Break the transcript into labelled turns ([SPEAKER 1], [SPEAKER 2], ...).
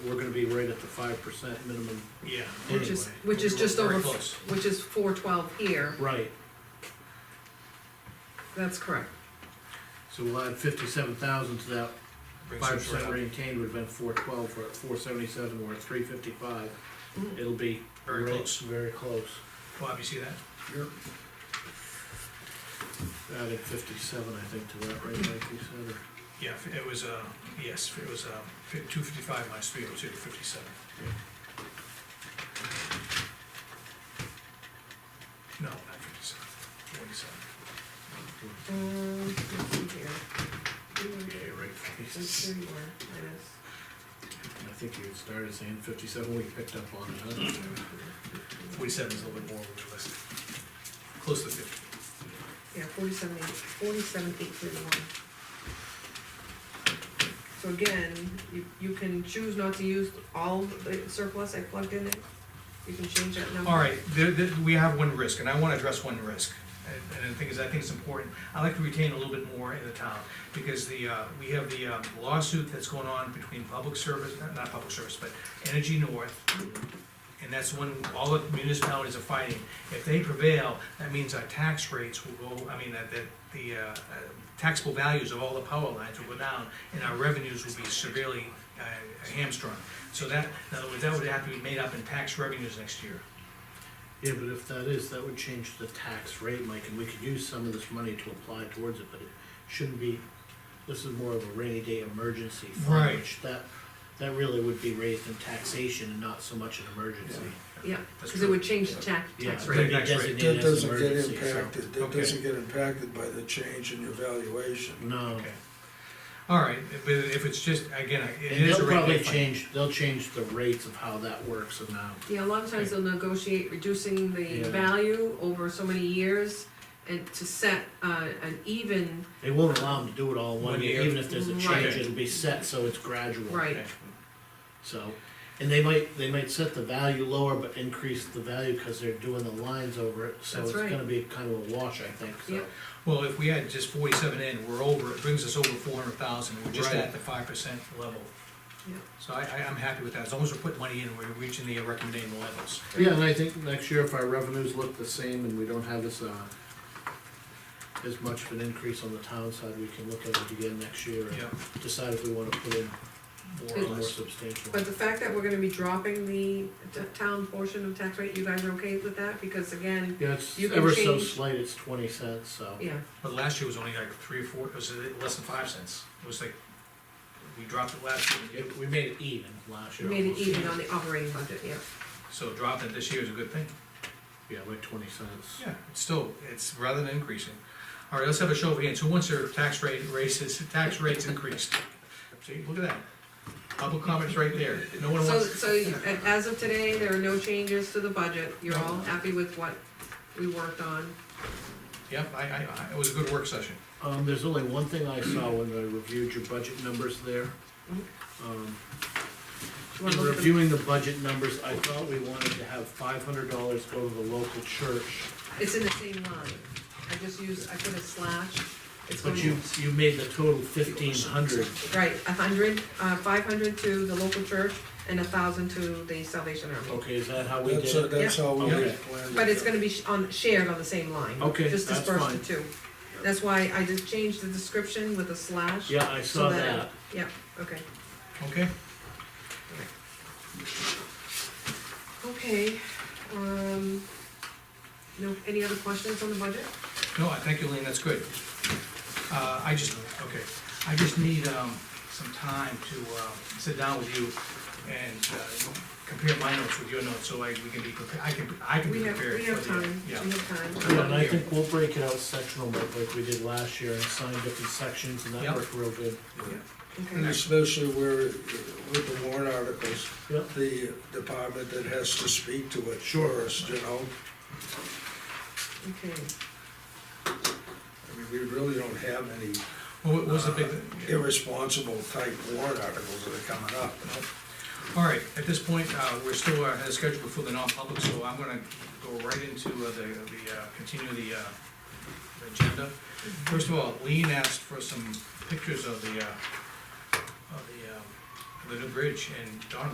[SPEAKER 1] we're gonna be right at the five percent minimum.
[SPEAKER 2] Yeah.
[SPEAKER 3] Which is,
[SPEAKER 1] anyway.
[SPEAKER 3] which is
[SPEAKER 1] We're
[SPEAKER 3] just
[SPEAKER 1] very
[SPEAKER 3] over,
[SPEAKER 1] close.
[SPEAKER 3] which is four twelve here,
[SPEAKER 1] Right,
[SPEAKER 3] that's correct.
[SPEAKER 1] so we'll add fifty-seven thousand to that,
[SPEAKER 2] Brings
[SPEAKER 1] five
[SPEAKER 2] us right
[SPEAKER 1] percent
[SPEAKER 2] up.
[SPEAKER 1] retained would've been four twelve, we're at four seventy-seven, we're at three fifty-five.
[SPEAKER 3] Mm.
[SPEAKER 1] It'll be.
[SPEAKER 2] Very
[SPEAKER 1] right-
[SPEAKER 2] close.
[SPEAKER 1] Very close,
[SPEAKER 2] Bob, you see that?
[SPEAKER 1] added fifty-seven, I think, to that, right, like you said, or.
[SPEAKER 2] Yeah, it was, uh, yes, it was, uh, two fifty-five minus three oh two, fifty-seven. No, not fifty-seven, forty-seven.
[SPEAKER 3] Um, let's see here. You were-
[SPEAKER 1] Yeah, you're right.
[SPEAKER 3] that's where you were,
[SPEAKER 1] I think you started saying fifty-seven, we picked up on it, huh?
[SPEAKER 2] Forty-seven is a little bit more realistic. Close to fifty.
[SPEAKER 3] yeah, forty-seven, eight, forty-seven, eight thirty-one. So again, you, you can choose not to use all the surplus I plugged in it, you can change that number.
[SPEAKER 2] All right, there, there, we have one risk, and I wanna address one risk. And, and the thing is, I think it's important, I like to retain a little bit more in the town, because the, uh, we have the um, lawsuit that's going on between public service, not- not public service, but Energy North. And that's when all the municipalities are fighting. If they prevail, that means our tax rates will go, I mean, that, that the, uh, uh, taxable values of all the power lines will go down, and our revenues will be severely, uh, hamstrung. So that, in other words, that would have to be made up in tax revenues next year.
[SPEAKER 1] Yeah, but if that is, that would change the tax rate, Mike, and we could use some of this money to apply towards it, but it shouldn't be, this is more of a rainy day emergency fund,
[SPEAKER 2] Right.
[SPEAKER 1] which that, that really would be raised in taxation and not so much an emergency.
[SPEAKER 3] Yeah,
[SPEAKER 2] That's
[SPEAKER 3] cause it
[SPEAKER 2] true.
[SPEAKER 3] would change the tax,
[SPEAKER 1] Yeah,
[SPEAKER 3] tax
[SPEAKER 1] it'd
[SPEAKER 3] rate.
[SPEAKER 1] be
[SPEAKER 2] Tax rate.
[SPEAKER 1] designated
[SPEAKER 4] That
[SPEAKER 1] as
[SPEAKER 4] doesn't get
[SPEAKER 1] emergency, so-
[SPEAKER 4] impacted, that
[SPEAKER 2] Okay.
[SPEAKER 4] doesn't get impacted by the change in your valuation.
[SPEAKER 1] No,
[SPEAKER 2] Okay. All right, but if it's just, again, it
[SPEAKER 1] and
[SPEAKER 2] is a
[SPEAKER 1] they'll
[SPEAKER 2] rate
[SPEAKER 1] probably
[SPEAKER 2] case. thing.
[SPEAKER 1] change, they'll change the rates of how that works amount.
[SPEAKER 3] Yeah, a lot of times they'll negotiate reducing the
[SPEAKER 1] Yeah.
[SPEAKER 3] value over so many years and to set uh, an even,
[SPEAKER 1] They won't allow them to do it all in one
[SPEAKER 2] One
[SPEAKER 1] year,
[SPEAKER 2] year.
[SPEAKER 1] even if there's a
[SPEAKER 3] Right.
[SPEAKER 1] change, it'll be set, so it's gradual.
[SPEAKER 3] right,
[SPEAKER 2] Okay.
[SPEAKER 1] So, and they might, they might set the value lower, but increase the value because they're doing the lines over it, so
[SPEAKER 3] That's
[SPEAKER 1] it's
[SPEAKER 3] right.
[SPEAKER 1] gonna be kind of a wash, I think, so.
[SPEAKER 3] Yep.
[SPEAKER 2] Well, if we had just forty-seven in, we're over, it brings us over four hundred thousand, we're just
[SPEAKER 1] Right.
[SPEAKER 2] at the five percent level.
[SPEAKER 3] yeah.
[SPEAKER 2] So I, I, I'm happy with that, as long as we're putting money in, we're reaching the recommended levels.
[SPEAKER 1] Yeah, and I think next year if our revenues look the same and we don't have this, uh, as much of an increase on the town side, we can look at it again next year
[SPEAKER 2] Yeah,
[SPEAKER 1] and decide if we wanna put in
[SPEAKER 2] more or
[SPEAKER 3] Good.
[SPEAKER 1] more
[SPEAKER 2] less.
[SPEAKER 1] substantial.
[SPEAKER 3] But the fact that we're gonna be dropping the t- town portion of tax rate, you guys are okay with that? Because again,
[SPEAKER 1] Yeah, it's
[SPEAKER 3] you can
[SPEAKER 1] ever so
[SPEAKER 3] change-
[SPEAKER 1] slight, it's twenty cents, so.
[SPEAKER 3] yeah,
[SPEAKER 2] But last year was only like three or four, it was uh, less than five cents, it was like, we dropped it last year,
[SPEAKER 1] It- We made it even last
[SPEAKER 3] we
[SPEAKER 1] year.
[SPEAKER 3] made it
[SPEAKER 1] almost.
[SPEAKER 3] even on the operating budget, yeah.
[SPEAKER 2] so dropping it this year is a good thing.
[SPEAKER 1] Yeah, like twenty cents.
[SPEAKER 2] Yeah, it's still, it's rather than increasing. All right, let's have a show of hands, who wants their tax rate raises, tax rates increased? See, look at that, public comments right there, no one
[SPEAKER 3] So,
[SPEAKER 2] wants,
[SPEAKER 3] so you- a- as of today, there are no changes to the budget, you're all happy with what we worked on?
[SPEAKER 2] yep, I, I, I- it was a good work session.
[SPEAKER 1] Um, there's only one thing I saw when I reviewed your budget numbers there.
[SPEAKER 3] Mhm.
[SPEAKER 1] Um, in
[SPEAKER 3] You wanna look at them?
[SPEAKER 1] reviewing the budget numbers, I thought we wanted to have five hundred dollars go to the local church.
[SPEAKER 3] It's in the same line, I just used, I put a slash, it's going
[SPEAKER 1] But you, you made the total fifteen hundred.
[SPEAKER 3] Right, a hundred, uh, five hundred to the local church and a thousand to the Salvation Army.
[SPEAKER 1] Okay, is that how we
[SPEAKER 4] That's,
[SPEAKER 1] did it?
[SPEAKER 4] that's how we
[SPEAKER 1] Yeah.
[SPEAKER 4] had planned it.
[SPEAKER 3] But it's gonna be sh- on, shared on the same line.
[SPEAKER 1] Okay,
[SPEAKER 3] Just
[SPEAKER 1] that's
[SPEAKER 3] dispersed
[SPEAKER 1] fine.
[SPEAKER 3] to two. That's why I just changed the description with a slash.
[SPEAKER 1] Yeah, I saw
[SPEAKER 3] so
[SPEAKER 1] that.
[SPEAKER 3] Yeah, okay.
[SPEAKER 2] Okay,
[SPEAKER 3] Okay, um, no, any other questions on the budget?
[SPEAKER 2] no, I thank you, Lean, that's good. Uh, I just, okay, I just need, um, some time to, uh, sit down with you and, uh, compare my notes with your notes, so I, we can be prepared, I can, I can be
[SPEAKER 3] We have,
[SPEAKER 2] prepared.
[SPEAKER 3] we have
[SPEAKER 2] for the-
[SPEAKER 3] time, we
[SPEAKER 2] Yeah.
[SPEAKER 3] have time.
[SPEAKER 1] Yeah, and I think we'll break it out sectional like, like we did last year and assign different sections and that
[SPEAKER 2] Yep.
[SPEAKER 1] worked real good.
[SPEAKER 4] Yeah. And
[SPEAKER 3] Okay,
[SPEAKER 4] especially where, it- with the warrant articles,
[SPEAKER 1] Yep.
[SPEAKER 4] the department that has to speak to it first, you know?
[SPEAKER 3] okay.
[SPEAKER 4] I mean, we really don't have any uh,
[SPEAKER 2] What was the big?
[SPEAKER 4] irresponsible type warrant articles that are coming up.
[SPEAKER 2] All right, at this point, uh, we're still uh, ahead of schedule before the non-public, so I'm gonna go right into uh, the, the, uh, continue the uh, the agenda. First of all, Lean asked for uh, some pictures of the, uh, of the, um, the new bridge, and Don